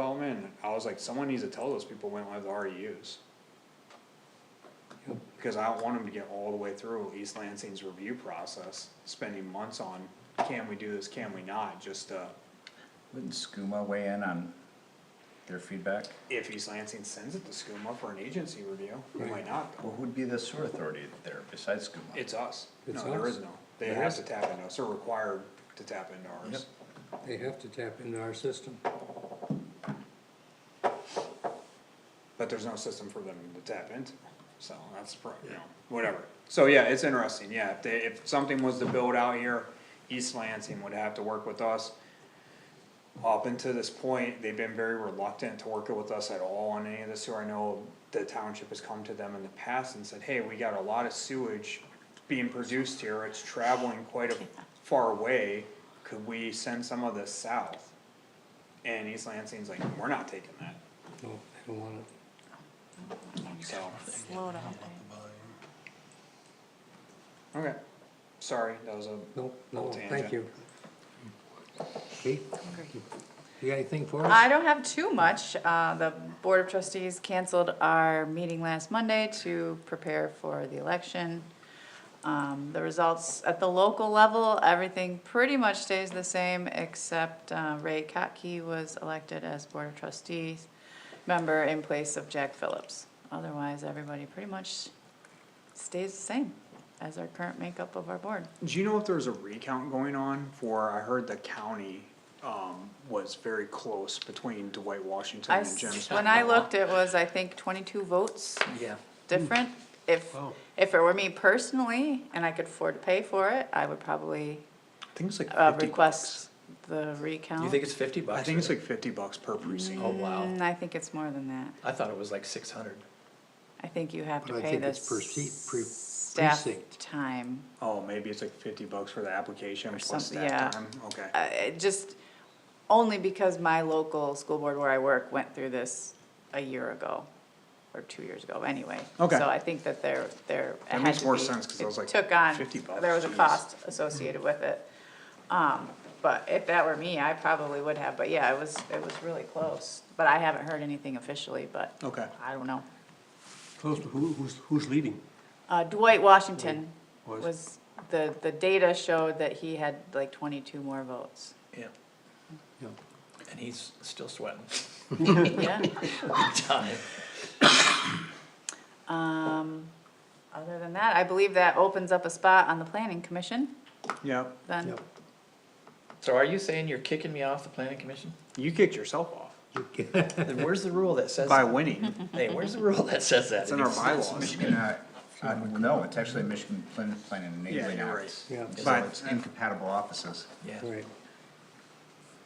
development, I was like, someone needs to tell those people we don't have the REUs. Because I don't want them to get all the way through East Lansing's review process, spending months on, can we do this, can we not, just, uh, Wouldn't SCUMA weigh in on their feedback? if East Lansing sends it to SCUMA for an agency review, we might not, go. Well, who'd be the sewer authority there besides SCUMA? it's us, no, It's there us. is no, they There have to isn't. tap into us, they're required to tap into ours. They have to tap into our system. but there's no system for them to tap into. So that's, pro- you know, whatever. So yeah, it's interesting, yeah, if they, if something was to build out here, East Lansing would have to work with us. Up until this point, they've been very reluctant to work with us at all on any of this, sewer. I know the township has come to them in the past and said, hey, we got a lot of sewage being produced here, it's traveling quite a far away, could we send some of this south? And East Lansing's like, we're not taking that, No, they don't want it. so. Slow down. Okay, sorry, that was a, No, no, Tangent. thank you. Kate, you got anything for us? I don't have too much. Uh, The Board of Trustees canceled our meeting last Monday to prepare for the election. Um, The results at the local level, everything pretty much stays the same except uh, Ray Kotke was elected as Board of Trustees member in place of Jack Phillips. Otherwise, everybody pretty much stays the same as our current makeup of our board. do you know if there's a recount going on for, I heard the county, um, was very close between Dwight Washington I, and Jim. s- when I Spadafora. looked, it was, I think, twenty-two votes Yeah. different. If, Mm. Wow. if it were me personally and I could afford to pay for it, I would probably I think it's like uh, fifty bucks. request the recount. You think it's fifty bucks? I think it's like fifty bucks per precinct. Oh, wow. Mm, I think it's more than that. I thought it was like six hundred. I think you have to But I pay think the it's per seat, pre- staff precinct. time. Oh, maybe it's like fifty bucks for the application plus something, staff Mm-hmm. yeah. time, okay. Uh, it just, only because my local school board where I work went through this a year ago, or two years ago, anyway. Okay. So I think that there, there. it That had makes to more be- sense, 'cause I it was like, Took on, 50 bucks, there was a jeez. cost associated with it. Um, but if that were me, I probably would have, but yeah, it was, it was really close. But I haven't heard anything officially, but. Okay. I don't know. Close to who, who's, who's leading? Uh, Dwight Washington Was- was, the, the data showed that he had like twenty-two more votes. Yeah. Yeah. And he's still sweating. Yeah. Time. Um, other than that, I believe that opens up a spot on the planning commission, Yep, then, Yep. So are you saying you're kicking me off the planning commission? you kicked yourself off Then where's the rule that says? by that? winning, Hey, where's the rule that says that? it's in our bylaws. Michigan, uh, uh, no, it's actually Michigan Plan, Plan and Yeah, Enabling you're Act. right. Yeah, So But it's incompatible offices. Yeah, right.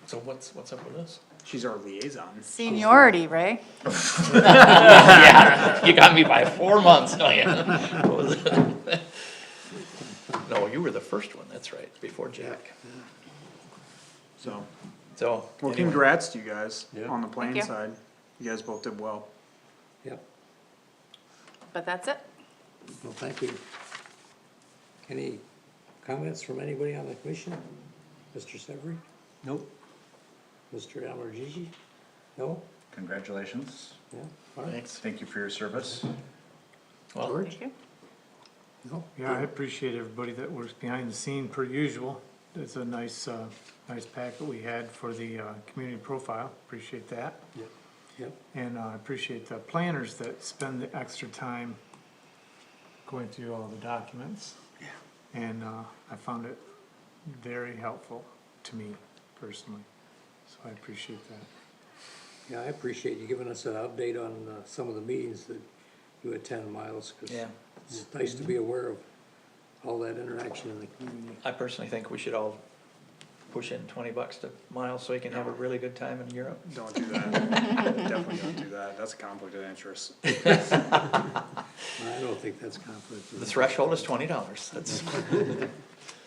so what's, what's up with this? she's our liaison. seniority, right? Yeah, you got me by four months, no, yeah. What was it? No, you were the first one, that's right, before Jack, So, so. well, anyway. congrats to you guys Yeah. on the playing you. side. You guys both did well. Yep, But that's it. well, thank you. Any comments from anybody on the commission? Mr. Severie? Nope. Mr. Allergy? No? Congratulations. Yeah, all right, Thanks. Thank you for your service. Well, George? Thank you. No? Yeah, I appreciate everybody that works behind the scene per usual. It's a nice, uh, nice pack that we had for the, uh, community profile. Appreciate that. Yep, And uh, I appreciate the planners that spend the extra time going through all the documents. And uh, I found it very helpful to me personally, so I appreciate that. yeah, I appreciate you giving us an update on, uh, some of the meetings that you attend, Miles, 'cause Yeah. it's nice to be aware of all that interaction in the community. I personally think we should all push in twenty bucks to Miles so he can have a really good time in Europe. Don't do that. Definitely don't do that. That's a conflict of interest. I don't think that's conflict. The threshold is twenty dollars, that's,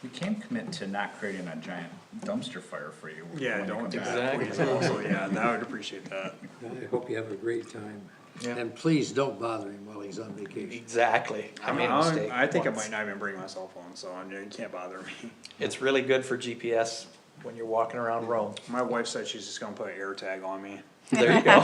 We can commit to not creating a giant dumpster fire for you. Yeah, when you don't come do back. that, please. Also, yeah, I would appreciate that. I hope you have a great time. Yeah. And please don't bother him while he's on vacation. exactly, I made a I'm- mistake I think I once. might not even bring my cell phone, so I mean, it can't bother me. It's really good for GPS when you're walking around Rome. My wife said she's just gonna put an air tag on me. There you go.